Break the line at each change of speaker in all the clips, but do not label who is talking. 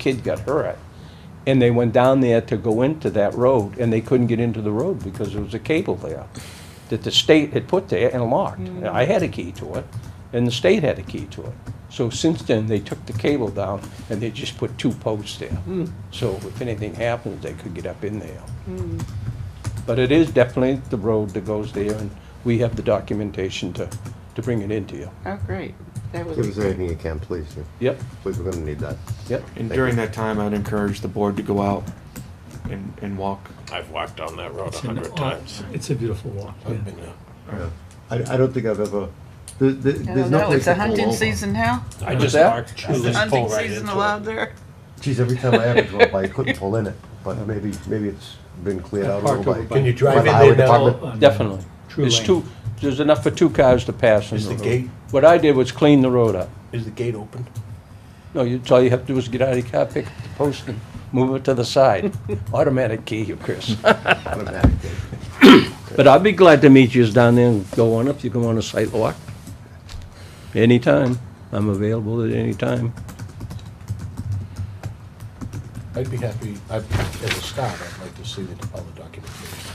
kid got hurt. And they went down there to go into that road, and they couldn't get into the road because there was a cable there that the state had put there and locked. And I had a key to it, and the state had a key to it. So since then, they took the cable down, and they just put two posts there. So if anything happens, they could get up in there. But it is definitely the road that goes there, and we have the documentation to, to bring it into you.
Oh, great. That would
Give
be
us
great.
anything you can, please. yeah.
Yep,
Please, we're gonna need that.
yep.
And during that time, I'd encourage the board to go out and, and walk.
I've walked down that road a
It's an
hundred
aw-
times.
It's a beautiful walk.
Oh,
yeah.
I've been there.
I, Uh, I don't think I've ever, there, there,
I
there's
don't
no
know,
place
is the
to pull
hunting
over.
season now?
I
What's
just
that?
walked.
Is the
just
hunting
pulled right
season
into
allowed
it.
there?
Geez, every time I ever drove by, I couldn't pull in it, but maybe, maybe it's been cleared out a
Parked
little
over
by.
by-
Can you
by
drive
the
in
highway
there now?
department.
Oh,
on
Definitely.
True
There's
lane.
two, there's enough for two cars to pass in
Is
the
the
road.
gate-
What I did was clean the road up.
Is the gate open?
No, you, all you have to do is get out of your car, pick up the post and move it to the side. Automatic key, you Chris.
Automatic.
But I'd be glad to meet yous down there and go on up, you come on a site walk. Anytime. I'm available at any time.
I'd be happy, I'd, as a start, I'd like to see the, all the documentation.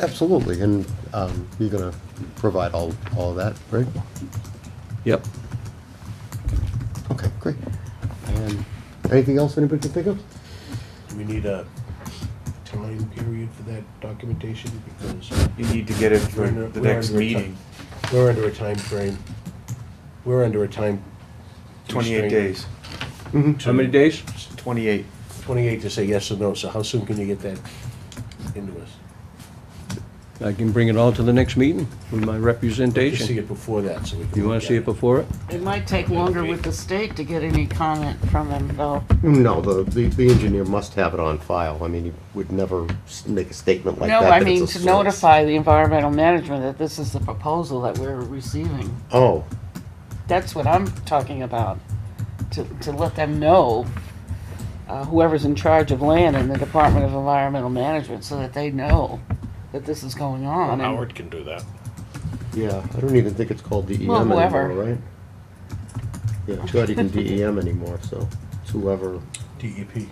Absolutely, and, um, you're gonna provide all, all that, right?
Yep.
Okay, great. Um, anything else anybody can think of?
Do we need a time period for that documentation? Because
You need to get it
we're
for
under-
the
we're
next
under a ti-
meeting,
We're under a time frame. We're under a time.
twenty-eight
constraint
days,
to-
How many days?
twenty-eight.
Twenty-eight to say yes or no, so how soon can you get that into us?
I can bring it all to the next meeting with my
To see
representation.
it before that, so we can.
You wanna
look at
see it before it?
It might take longer with the state to get any comment from them, though.
No, the, the, the engineer must have it on file. I mean, he would never s- make a statement like
No,
that.
I
that
mean,
it's a
to
source.
notify the environmental management that this is the proposal that we're receiving.
Oh,
That's what I'm talking about, to, to let them know, uh, whoever's in charge of land in the Department of Environmental Management, so that they know that this is going on. and-
Howard can do that.
yeah, I don't even think it's called DEM
Well, whoever.
anymore, right? Yeah, it's not even DEM E anymore, so it's whoever,
DEP.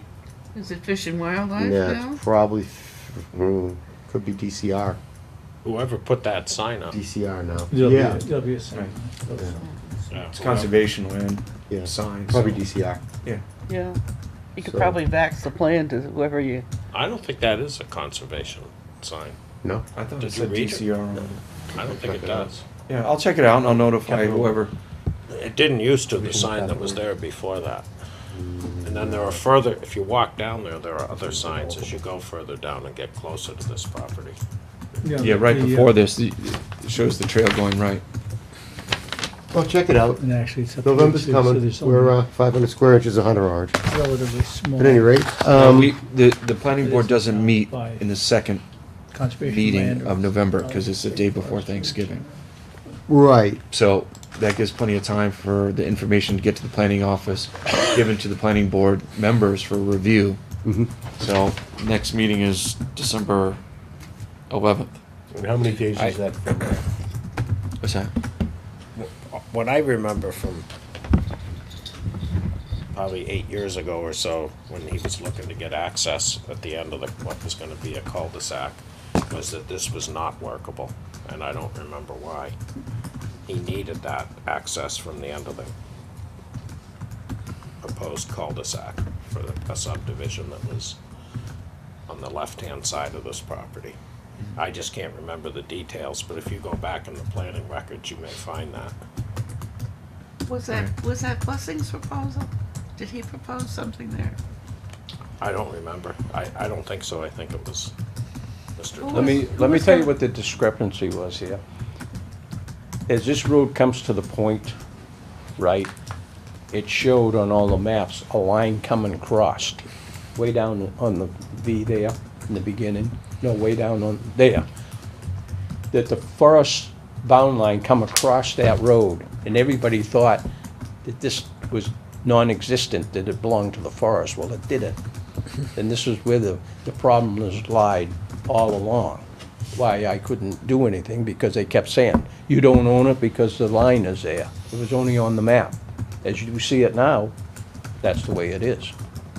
Is it Fish and Wildlife
yeah,
now?
it's probably, mm, could be DCR,
Whoever put that sign up.
DCR now.
There'll be,
Yeah,
a- there'll be a sign.
It's conservation land,
yeah,
signs.
probably DCR.
Yeah. You could
So-
probably vax the plan to whoever you
I don't think that is a conservation sign.
No,
I thought it
Did you
said
read it?
DCR. on it.
I don't think it does.
Yeah, I'll check it out and I'll notify
Capital.
whoever.
It didn't used to, the sign that was there before that. And then there are further, if you walk down there, there are other signs as you go further down and get closer to this property.
Yeah, right
the, uh,
before this, it shows the trail going right.
well, check it out.
And actually, it's up to
November's
you, so- so
coming.
there's
We're,
only
uh, five hundred square inches, a hundred orange.
Relatively small.
At any rate,
Um,
um,
the, the planning board doesn't meet
By-
in the second
Conservation land
meeting
or-
of November, cause it's the day before Thanksgiving.
right,
So that gives plenty of time for the information to get to the planning office, given to the planning board members for review. So next meeting is December eleventh.
And how many days is that from?
What's that?
What I remember from probably eight years ago or so, when he was looking to get access at the end of the, what was gonna be a cul-de-sac, was that this was not workable, and I don't remember why. He needed that access from the end of the proposed cul-de-sac for the- a subdivision that was on the left-hand side of this property. I just can't remember the details, but if you go back in the planning records, you may find that.
Was that, was that Blessing's proposal? Did he propose something there?
I don't remember. I, I don't think so. I think it was Mr.
Who
Let
Dillon.
me, let me tell you what the discrepancy was here. As this road comes to the point, right, it showed on all the maps, a line coming across, way down on the V there in the beginning, no, way down on, there. That the forest bound line come across that road, and everybody thought that this was non-existent, that it belonged to the forest. Well, it didn't. And this is where the, the problem has lied all along. Why I couldn't do anything, because they kept saying, you don't own it because the line is there. It was only on the map. As you see it now, that's the way it is.